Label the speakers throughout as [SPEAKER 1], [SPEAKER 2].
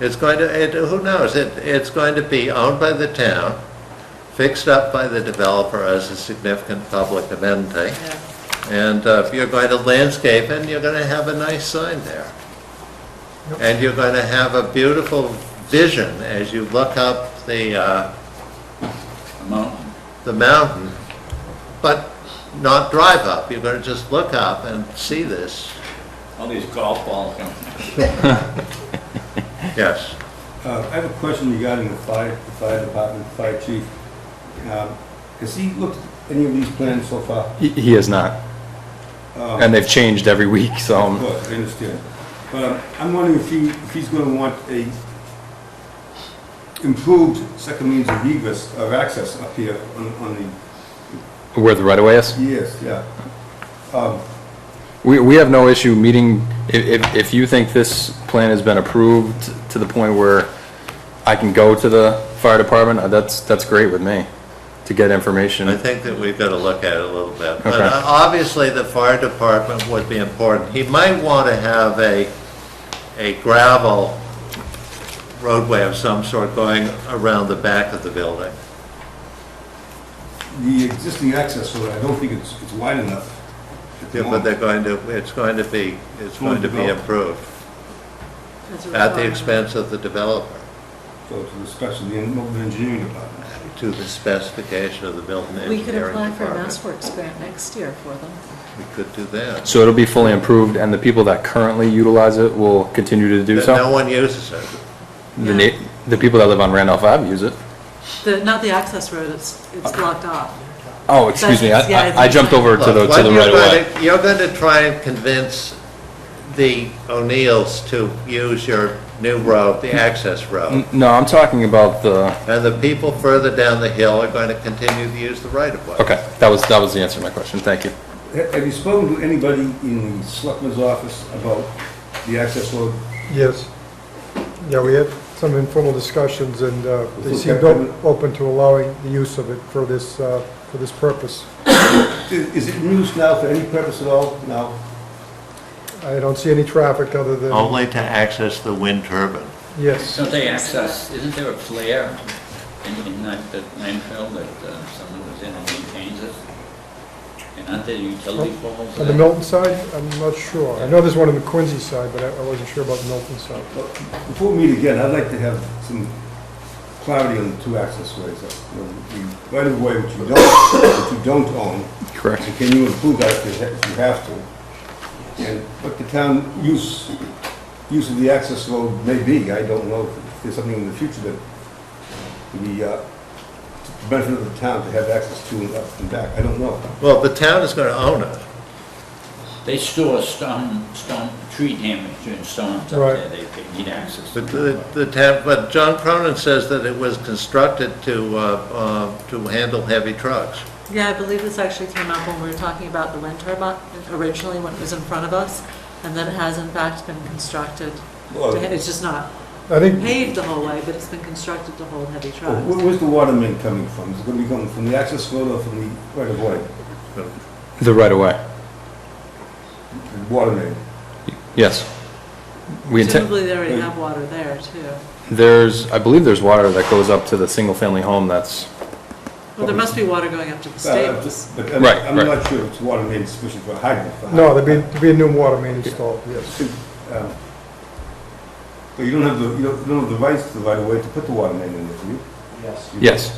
[SPEAKER 1] It's going to, it, who knows, it, it's going to be owned by the town, fixed up by the developer as a significant public amenity. And uh, if you're going to landscape it, you're gonna have a nice sign there. And you're gonna have a beautiful vision as you look up the, uh,
[SPEAKER 2] mountain.
[SPEAKER 1] the mountain, but not drive up, you're gonna just look up and see this,
[SPEAKER 2] All these golf balls come.
[SPEAKER 1] yes.
[SPEAKER 3] Uh, I have a question regarding the fire, the fire department, the fire chief. Um, Has he looked at any of these plans so far?
[SPEAKER 4] He- He has not.
[SPEAKER 3] Um,
[SPEAKER 4] And they've changed every week, so um,
[SPEAKER 3] Look, I understand. But um, I'm wondering if he, if he's gonna want a improved second means of egress, of access up here on, on the,
[SPEAKER 4] where the right-of-way is.
[SPEAKER 3] yes, yeah. Um,
[SPEAKER 4] We, we have no issue meeting, if, if, if you think this plan has been approved to the point where I can go to the fire department, uh, that's, that's great with me, to get
[SPEAKER 1] I
[SPEAKER 4] information.
[SPEAKER 1] think that we've got to look at it a little bit. But
[SPEAKER 4] Okay.
[SPEAKER 1] uh, obviously, the fire department would be important. He might want to have a, a gravel roadway of some sort going around the back of the building.
[SPEAKER 3] The existing access road, I don't think it's, it's wide enough. at the
[SPEAKER 1] Yeah, But
[SPEAKER 3] moment.
[SPEAKER 1] they're going to, it's going to be, it's going to be improved at the expense of the developer,
[SPEAKER 3] So to the special, the Milton engineering department.
[SPEAKER 1] to the specification of the building
[SPEAKER 5] We could
[SPEAKER 1] engineering
[SPEAKER 5] apply for a
[SPEAKER 1] department.
[SPEAKER 5] Mass Works grant next year for them.
[SPEAKER 1] We could do that.
[SPEAKER 4] So it'll be fully improved, and the people that currently utilize it will continue to do
[SPEAKER 1] But No
[SPEAKER 4] so?
[SPEAKER 1] one uses it.
[SPEAKER 4] The na, the people that live on Randolph Ave use it?
[SPEAKER 5] The, not the access road, it's, it's blocked off.
[SPEAKER 4] Oh, excuse me,
[SPEAKER 5] That's- yeah,
[SPEAKER 4] I- I, I jumped over to the,
[SPEAKER 1] Look,
[SPEAKER 4] to
[SPEAKER 1] what
[SPEAKER 4] the
[SPEAKER 1] you're
[SPEAKER 4] right-of-way.
[SPEAKER 1] gonna- You're going to try and convince the O'Neills to use your new road, the access road.
[SPEAKER 4] N- No, I'm talking about the,
[SPEAKER 1] And the people further down the hill are going to continue to use the right-of-way.
[SPEAKER 4] okay, that was, that was the answer to my question, thank you.
[SPEAKER 3] Ha- Have you spoken to anybody in the selectman's office about the access road?
[SPEAKER 6] Yes. Yeah, we had some informal discussions, and uh, they
[SPEAKER 3] Okay.
[SPEAKER 6] seemed o- open to allowing the use of it for this, uh, for this purpose.
[SPEAKER 3] I- Is it in use now for any purpose at all? No?
[SPEAKER 6] I don't see any traffic other than,
[SPEAKER 1] Only to access the wind turbine.
[SPEAKER 6] yes,
[SPEAKER 2] Don't they access, isn't there a flare in, in that, that landfill that uh, someone was in and maintains it? And aren't there utility poles?
[SPEAKER 6] on the Milton side, I'm not sure. I know there's one on the Quincy side, but I I wasn't sure about the Milton side.
[SPEAKER 3] Well, Before we meet again, I'd like to have some clarity on the two access ways. uh, you know, The right of way which you don't, which you don't own,
[SPEAKER 4] Correct.
[SPEAKER 3] and can you improve that if you ha- if you have to? And what the town use, use of the access road may be, I don't know. If There's something in the future that would be, uh, to benefit of the town to have access to and up and back, I don't know.
[SPEAKER 1] Well, the town is going to own it.
[SPEAKER 2] They store stone, stone, tree damage and stones up
[SPEAKER 6] Right.
[SPEAKER 2] there, they, they need access. to
[SPEAKER 1] But
[SPEAKER 2] that.
[SPEAKER 1] the, the town, but John Cronin says that it was constructed to, uh, uh, to handle heavy trucks.
[SPEAKER 5] Yeah, I believe this actually came up when we were talking about the wind turbine originally, when it was in front of us, and then it has in fact been constructed.
[SPEAKER 3] Well,
[SPEAKER 5] to- It's just not
[SPEAKER 6] I think,
[SPEAKER 5] paved the whole way, but it's been constructed to hold heavy
[SPEAKER 3] Well,
[SPEAKER 5] trucks.
[SPEAKER 3] where- Where's the water main coming from? Is it going to be coming from the access road or from the right of way?
[SPEAKER 4] The right-of-way.
[SPEAKER 3] The Water main?
[SPEAKER 4] Yes. We intend,
[SPEAKER 5] Presumably they already have water there too.
[SPEAKER 4] there's, I believe there's water that goes up to the single-family home that's,
[SPEAKER 5] Well, there must be water going up to the
[SPEAKER 3] Uh,
[SPEAKER 5] stables.
[SPEAKER 3] But I'm-
[SPEAKER 4] Right,
[SPEAKER 3] I'm
[SPEAKER 4] right.
[SPEAKER 3] not sure if it's water main sufficient for hydrant. for
[SPEAKER 6] no,
[SPEAKER 3] hydrant.
[SPEAKER 6] there'd be, there'd be a new water main installed, yes.
[SPEAKER 3] Um, But you don't have the, you don't you don't have the rights to the right of way to put the water main in there, do you? Yes.
[SPEAKER 4] yes,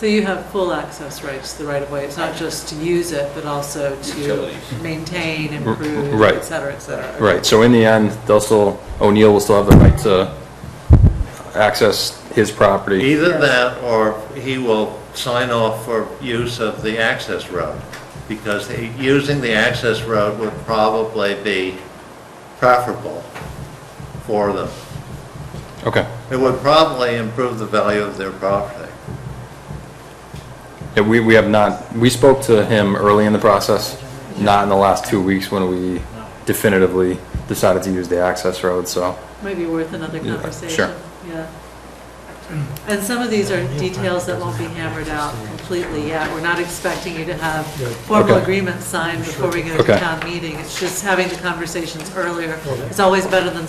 [SPEAKER 5] So you have full access rights to the right-of-way. It's not just to use it, but also to
[SPEAKER 2] Utilities.
[SPEAKER 5] maintain,
[SPEAKER 4] R-
[SPEAKER 5] improve,
[SPEAKER 4] right.
[SPEAKER 5] et cetera, et cetera.
[SPEAKER 4] right. So in the end, they'll still, O'Neill will still have the right to access his property.
[SPEAKER 1] Either that, or he will sign off for use of the access road, because he- using the access road would probably be preferable for them.
[SPEAKER 4] Okay.
[SPEAKER 1] It would probably improve the value of their property.
[SPEAKER 4] Yeah, we, we have not, we spoke to him early in the process, not in the last two weeks when we definitively decided to use the access road, so.
[SPEAKER 5] Might be worth another
[SPEAKER 4] Yeah,
[SPEAKER 5] conversation.
[SPEAKER 4] sure.
[SPEAKER 5] Yeah. And some of these are details that won't be hammered out completely yet. We're not expecting you to have
[SPEAKER 6] Yeah.
[SPEAKER 5] formal
[SPEAKER 4] Okay.
[SPEAKER 5] agreements signed before we go to
[SPEAKER 4] Okay.
[SPEAKER 5] town meeting. It's just having the conversations earlier. It's always better than